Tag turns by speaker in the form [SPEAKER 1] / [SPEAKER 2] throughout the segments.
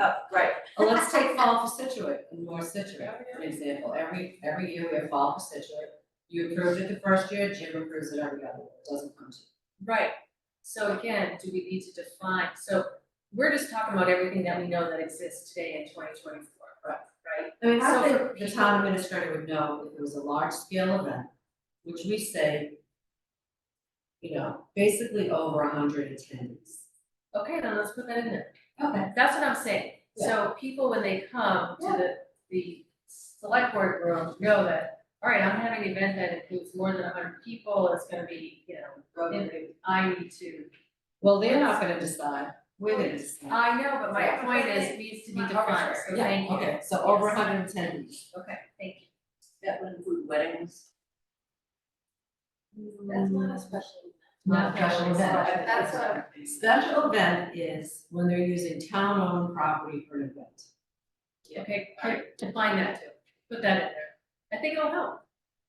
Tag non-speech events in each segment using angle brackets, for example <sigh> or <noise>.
[SPEAKER 1] Oh, right,
[SPEAKER 2] Well, let's take fall for Situate, North Situate, for example, every, every year we have fall for Situate. You approved it the first year, Jim approves it every other, year. it doesn't come to you.
[SPEAKER 1] right. So again, do we need to define, so we're just talking about everything that we know that exists today in twenty twenty-four, right? Right?
[SPEAKER 2] I mean,
[SPEAKER 1] So
[SPEAKER 2] I
[SPEAKER 1] for
[SPEAKER 2] think the
[SPEAKER 1] people-
[SPEAKER 2] town administrator would know if it was a large scale event, which we say. You know, basically over hundred attendees.
[SPEAKER 1] Okay, then let's put that in there.
[SPEAKER 2] Okay.
[SPEAKER 1] That's what I'm saying, so people, when they come to
[SPEAKER 2] Yeah.
[SPEAKER 1] the, the select board room, know that, all right, I'm having an event that includes more than hundred people, it's gonna be, you know, and I need to,
[SPEAKER 2] Well, they're not gonna decide, we're gonna decide.
[SPEAKER 1] I know, but my point is, needs to be defined, so thank you.
[SPEAKER 2] Yeah, Uh, okay, so over
[SPEAKER 1] Yes.
[SPEAKER 2] hundred attendees.
[SPEAKER 1] Okay, thank you.
[SPEAKER 3] That would include weddings.
[SPEAKER 4] That's not a special.
[SPEAKER 2] Not special event.
[SPEAKER 4] That's what
[SPEAKER 2] Special event is when they're using town-owned property for an event.
[SPEAKER 1] Okay, great. define that too, put that in there, I think it'll help.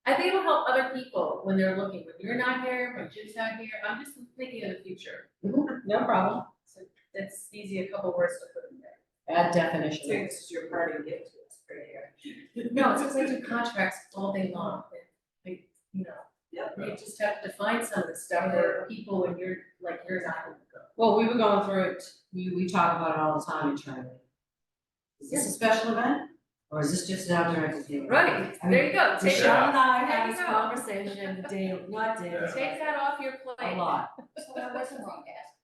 [SPEAKER 1] I think it'll help other people when they're looking, when you're not here, when Jim's not here, I'm just thinking of the future.
[SPEAKER 2] No problem.
[SPEAKER 1] So that's easy, a couple words to put in there.
[SPEAKER 2] Add definition.
[SPEAKER 3] this is your party gift to us right here.
[SPEAKER 1] <laughs> No, it's just I do contracts all day long, and, like, you know.
[SPEAKER 3] Yep.
[SPEAKER 1] You just have to find some of the stuff where people, when you're, like, you're not gonna go.
[SPEAKER 2] Well, we were going through it, we, we talk about it all the time internally. Is this a special event, or is this just an outdoor entertainment?
[SPEAKER 1] Right, there you go, take,
[SPEAKER 2] Michelle and I
[SPEAKER 1] There
[SPEAKER 2] had
[SPEAKER 1] you
[SPEAKER 2] this
[SPEAKER 1] go.
[SPEAKER 2] conversation day, not day,
[SPEAKER 1] take that off your
[SPEAKER 2] a
[SPEAKER 1] plate.
[SPEAKER 2] lot.
[SPEAKER 4] So there wasn't wrong to ask.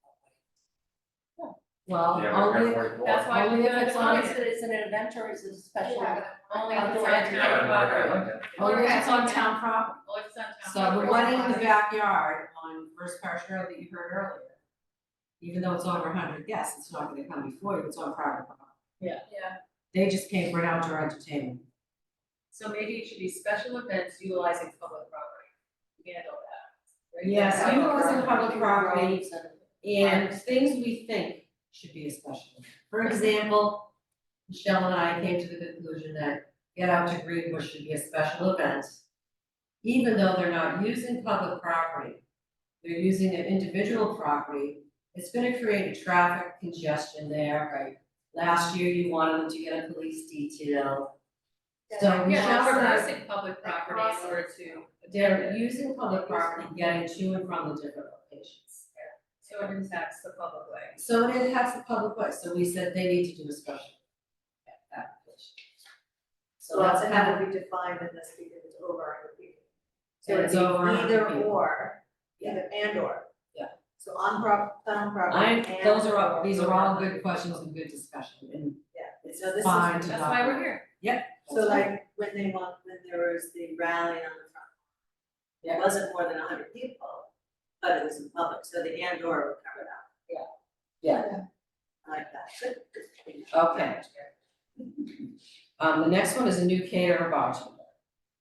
[SPEAKER 2] Well,
[SPEAKER 5] Yeah, we're
[SPEAKER 2] only,
[SPEAKER 5] here for it.
[SPEAKER 1] That's why we
[SPEAKER 2] Only
[SPEAKER 1] do
[SPEAKER 2] if
[SPEAKER 1] it
[SPEAKER 2] it's
[SPEAKER 1] as long
[SPEAKER 2] on
[SPEAKER 1] as
[SPEAKER 3] Is it, is it an event or is it a special?
[SPEAKER 4] Yeah.
[SPEAKER 1] only
[SPEAKER 3] I'll
[SPEAKER 1] if
[SPEAKER 3] do
[SPEAKER 1] it's
[SPEAKER 3] it.
[SPEAKER 1] on
[SPEAKER 5] Yeah,
[SPEAKER 1] town
[SPEAKER 5] I'm not gonna
[SPEAKER 1] property.
[SPEAKER 5] like that.
[SPEAKER 2] only if it's on town property.
[SPEAKER 1] Only if it's on town
[SPEAKER 2] So the
[SPEAKER 1] property.
[SPEAKER 2] one in the backyard on First Parish Road that you heard earlier. Even though it's over hundred guests, it's not gonna come before you, it's on private property.
[SPEAKER 4] Yeah.
[SPEAKER 2] They just came for an outdoor entertainment.
[SPEAKER 1] So maybe it should be special events utilizing public property, handle that. right?
[SPEAKER 2] Yes,
[SPEAKER 1] That's
[SPEAKER 2] you
[SPEAKER 1] how it
[SPEAKER 2] always
[SPEAKER 1] works.
[SPEAKER 2] in public property and things we think should be a special. event. For example, Michelle and I came to the conclusion that Get Out to Greenbush should be a special event. Even though they're not using public property, they're using their individual property, it's gonna create a traffic congestion there, right? Last year, you wanted them to get a police detail. So
[SPEAKER 4] Yeah.
[SPEAKER 1] Yeah,
[SPEAKER 2] Michelle
[SPEAKER 1] we're
[SPEAKER 2] and I
[SPEAKER 1] reversing public property in order to.
[SPEAKER 2] They're using public property, getting to and from the different locations.
[SPEAKER 1] So it impacts the public way.
[SPEAKER 2] So it impacts the public way, so we said they need to do a special application. So
[SPEAKER 3] So that's
[SPEAKER 2] that's
[SPEAKER 3] how
[SPEAKER 2] how,
[SPEAKER 3] would be defined in this because it's over our people.
[SPEAKER 2] And
[SPEAKER 3] So it's
[SPEAKER 2] it's over our
[SPEAKER 3] either
[SPEAKER 2] people.
[SPEAKER 3] or, either and or.
[SPEAKER 2] Yeah.
[SPEAKER 3] So on prop, town property
[SPEAKER 2] I,
[SPEAKER 3] and.
[SPEAKER 2] those are all, these are all good questions and good discussion, and
[SPEAKER 3] Yeah,
[SPEAKER 2] it's
[SPEAKER 3] so this is-
[SPEAKER 2] fine to
[SPEAKER 1] That's why
[SPEAKER 2] not-
[SPEAKER 1] we're here.
[SPEAKER 3] So like when they want, when there was the rally on the front.
[SPEAKER 2] Yeah.
[SPEAKER 3] It wasn't more than hundred people, but it was in public, so the and or would cover that.
[SPEAKER 2] Yeah.
[SPEAKER 3] I like that. Good.
[SPEAKER 2] Okay. Um, the next one is a new caterer bartender.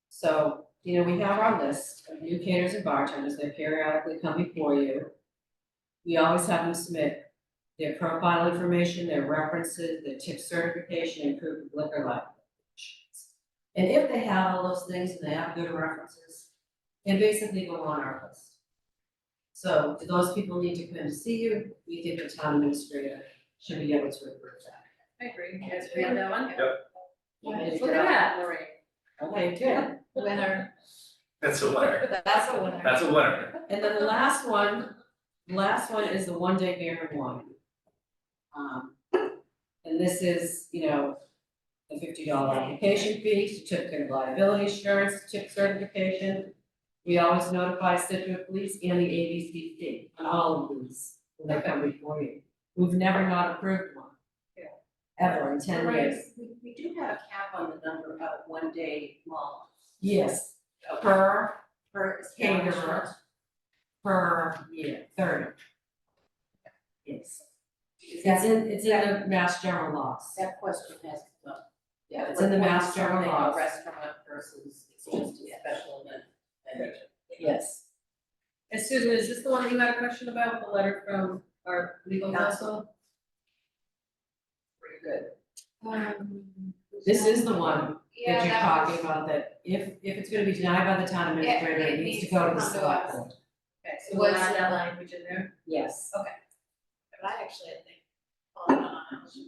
[SPEAKER 2] So, you know, we have our list of new caterers and bartenders, they periodically come before you. We always have them submit their profile information, their references, their tip certification, and proof of liquor license. And if they have all those things and they have good references, they basically go on our list. So do those people need to come to see you? We think the town administrator should be able to approve that.
[SPEAKER 1] I agree, you guys agree on that one?
[SPEAKER 2] Want me to
[SPEAKER 1] Look
[SPEAKER 2] get
[SPEAKER 1] at
[SPEAKER 2] up?
[SPEAKER 1] that, Lorraine.
[SPEAKER 2] Okay, good.
[SPEAKER 4] Winner.
[SPEAKER 5] That's a winner,
[SPEAKER 2] That's the one.
[SPEAKER 5] that's a winner.
[SPEAKER 2] And then the last one, the last one is the one day beer and wine. Um, and this is, you know, the fifty dollar application fee, certificate of liability insurance, tip certification. We always notify Situate Police and the ABCC on all of these when they come before you. We've never not approved one.
[SPEAKER 1] Yeah.
[SPEAKER 2] Ever in ten years.
[SPEAKER 3] We, we do have a cap on the number of one day long.
[SPEAKER 2] Yes, per, per establishment, per year, thirty. Yes. It's in, it's in the mass general laws.
[SPEAKER 4] That question has to go.
[SPEAKER 2] Yeah, it's in the mass general laws,
[SPEAKER 4] Restaurant versus it's just a special event. And
[SPEAKER 2] yes.
[SPEAKER 1] And Susan, is this the one that you had a question about, the letter from our legal counsel?
[SPEAKER 2] Pretty good.
[SPEAKER 4] Um,
[SPEAKER 2] This is the one
[SPEAKER 4] yeah,
[SPEAKER 2] that you're
[SPEAKER 4] that
[SPEAKER 2] talking
[SPEAKER 4] was-
[SPEAKER 2] about, that if, if it's gonna be denied by the town
[SPEAKER 4] Yeah,
[SPEAKER 2] administrator,
[SPEAKER 4] it
[SPEAKER 2] it needs
[SPEAKER 4] needs
[SPEAKER 2] to go
[SPEAKER 4] to
[SPEAKER 2] to the
[SPEAKER 4] come to
[SPEAKER 2] select
[SPEAKER 4] us.
[SPEAKER 2] board.
[SPEAKER 1] Okay, so we'll
[SPEAKER 4] Was-
[SPEAKER 1] add that language in there.
[SPEAKER 2] Yes.
[SPEAKER 1] Oh,
[SPEAKER 4] But I actually, I think, on, on,